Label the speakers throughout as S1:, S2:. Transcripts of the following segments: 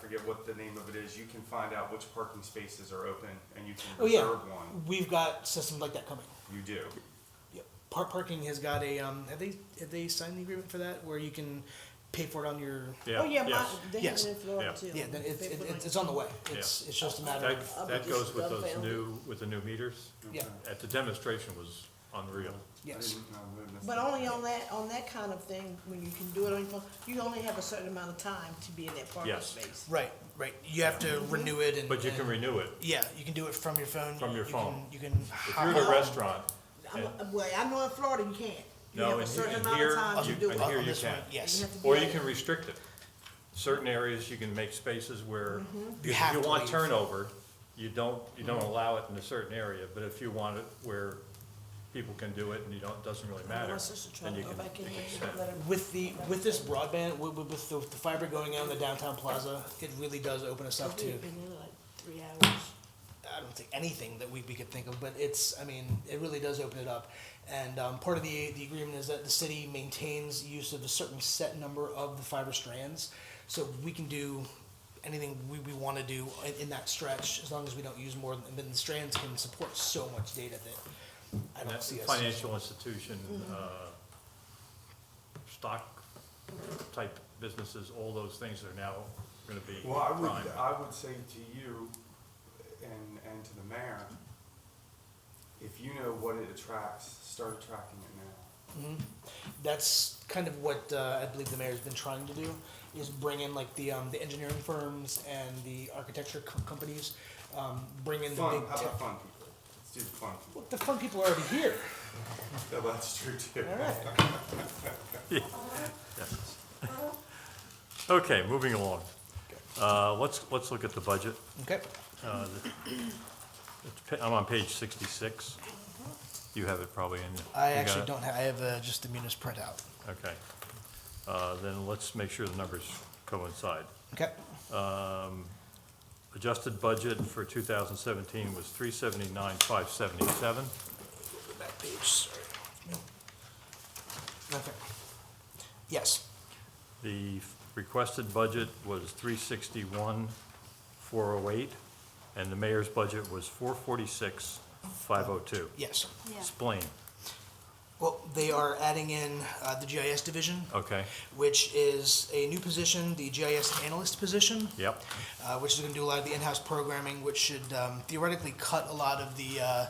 S1: forget what the name of it is, you can find out which parking spaces are open and you can
S2: Oh, yeah.
S1: reserve one.
S2: We've got systems like that coming.
S1: You do.
S2: Yep. Par- parking has got a, um, have they, have they signed the agreement for that where you can pay for it on your,
S3: Oh, yeah, my,
S4: yes.
S3: they have
S2: Yes.
S3: it in Florida
S4: Yeah.
S3: too.
S2: yeah, then it's,
S3: They put
S2: it's,
S3: like-
S2: it's on the way. It's, it's just a matter
S4: That,
S2: of,
S3: I'll be
S4: that goes
S3: just
S4: with those
S3: dumbfounded.
S4: new, with the new meters.
S2: yeah,
S4: At the demonstration was unreal.
S2: yes.
S3: But only on that, on that kind of thing, when you can do it on your phone, you only have a certain amount of time to be in that parking
S4: Yes.
S3: space.
S2: Right, right. You have to renew it and.
S4: But you can
S2: and-
S4: renew it.
S2: Yeah, you can do it from your phone.
S4: From your
S2: You
S4: phone.
S2: can- You can.
S4: If you're at a restaurant,
S3: I'm,
S4: and-
S3: well, I know in Florida you can't. You
S4: No,
S3: have a
S4: and-
S3: certain
S4: and
S3: amount
S4: here
S3: of time to
S4: you-
S3: do it.
S4: and
S2: on-
S4: here
S2: on
S4: you
S2: this one,
S4: can.
S2: Yes.
S3: have to
S4: or
S3: be
S4: you
S3: on
S4: can
S3: it.
S4: restrict it. Certain areas, you can make spaces where,
S3: Mm-hmm.
S2: You
S4: if
S2: have
S4: you
S2: to
S4: want
S2: leave.
S4: turnover, you don't, you don't allow it in a certain area, but if you want it where people can do it and you don't, it doesn't really
S3: My
S4: matter,
S3: sister tried
S4: then
S3: to
S4: you
S3: go
S4: can,
S3: back in
S4: you
S3: there
S4: can
S3: and
S4: spend.
S3: let her-
S2: With the, with this broadband, with, with- with the with the fiber going out in the downtown plaza, it really does open us up to,
S3: We've been there like three hours.
S2: I don't think anything that we, we could think of, but it's, I mean, it really does open it up. And, um, part of the, the agreement is that the city maintains use of a certain set number of the fiber strands. So we can do anything we, we wanna do in, in that stretch, as long as we don't use more, than then the strands can support so much data that I
S4: And
S2: don't
S4: that's
S2: see us.
S4: Financial institution,
S1: Mm-hmm.
S4: uh, stock type businesses, all those things are now gonna be
S1: Well, I would,
S4: prime.
S1: I would say to you and, and to the mayor, if you know what it attracts, start attracting it now.
S2: that's kind of what uh, I believe the mayor's been trying to do is bring in like the um, the engineering firms and the architecture co- companies, um, bring in the
S1: Fun,
S2: big
S1: how
S2: tech.
S1: about fun people? Let's do the fun people.
S2: Well, the fun people are already here.
S1: Yeah, That's true too.
S2: All right.
S4: Yes. Okay, moving along. Uh, let's, let's look at the budget.
S2: Okay.
S4: Uh, the- it's pa- I'm on page sixty-six.
S1: Mm-hmm.
S4: You have it probably in.
S2: I
S4: you got
S2: actually
S4: it?
S2: don't have. I have uh, just the munis printout.
S4: Okay. Uh, then let's make sure the numbers coincide.
S2: Okay.
S4: Adjusted budget for two thousand seventeen was three seventy-nine, five seventy-seven.
S2: Go back page. Sorry. No. Okay. Yes.
S4: The f- requested budget was three sixty-one, four oh eight, and the mayor's budget was four forty-six, five oh two.
S2: Yes.
S4: Explain,
S2: Well, they are adding in uh, the GIS division,
S4: okay,
S2: which is a new position, the GIS analyst position.
S4: yep,
S2: uh, which is going to do a lot of the in-house programming, which should um, theoretically cut a lot of the uh,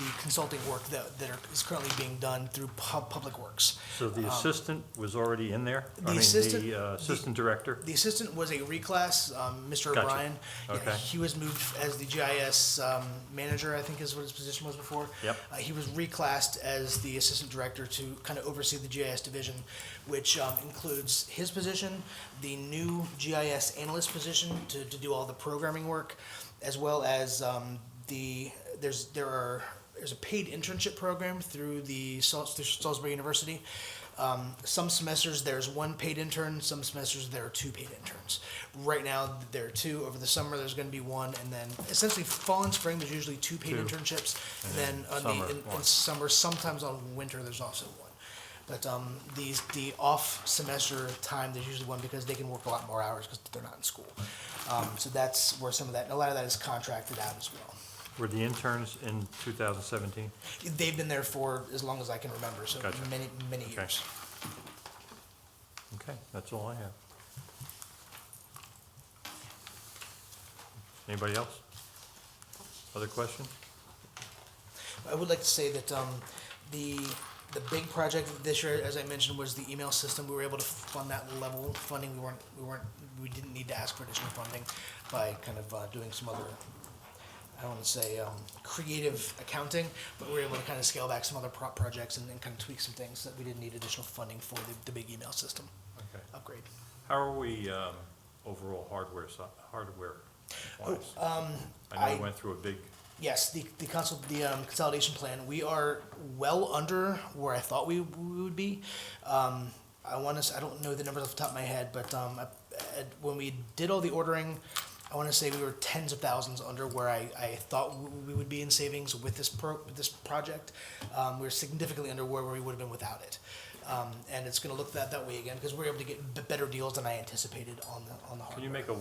S2: the consulting work that, that are, is currently being done through pub, public works.
S4: so the assistant was already in there? I
S2: Um, the
S4: mean,
S2: assistant-
S4: The uh, assistant director?
S2: The assistant was a reclass, um, Mr.
S4: Gotcha.
S2: O'Brien. Yeah,
S4: Okay.
S2: He was moved as the GIS um, manager, I think is what his position was before.
S4: Yep.
S2: Uh, he was reclassed as the assistant director to kind of oversee the GIS division, which um, includes his position, the new GIS analyst position to, to do all the programming work, as well as um, the there's there are there's a paid internship program through the Sal- through Salisbury University. Um, some semesters there's one paid intern, some semesters there are two paid interns. Right now there are two. Over the summer there's going to be one, and then essentially fall and spring there's usually two paid
S4: Two.
S2: internships. And then
S4: And
S2: on
S4: then summer,
S2: the in, in
S4: one.
S2: summer, sometimes on winter, there's also one. But um, these the off semester time, there's usually one because they can work a lot more hours because they're not in school. Um, so that's where some of that, and a lot of that is contracted out as well.
S4: Were the interns in 2017?
S2: They've been there for as long as I can remember, so
S4: Gotcha.
S2: many many
S4: Okay.
S2: years.
S4: Okay, that's all I have. Anybody else? Other question?
S2: I would like to say that um, the the big project this year, as I mentioned, was the email system. We were able to fund that level funding. We weren't we weren't we didn't need to ask for additional funding by kind of uh, doing some other. I don't want to say um, creative accounting, but we were able to kind of scale back some other prop projects and, and kind of tweak some things that we didn't need additional funding for the, the big email system
S4: Okay.
S2: upgrade.
S4: How are we um, overall hardware, si- hardware wise? I know
S2: I-
S4: we went through a big,
S2: Yes, the the consol the um, consolidation plan. We are well under where I thought we, we would be. Um, I want to. I don't know the numbers off the top of my head, but um, I, at, when we did all the ordering, I want to say we were tens of thousands under where I, I thought w- we would be in savings with this pro with this project. Um, we were significantly under where we would have been without it, um, and it's going to look that that way again because we are able to get b- better deals than I anticipated on the on the.
S4: can you
S2: hardware.
S4: make a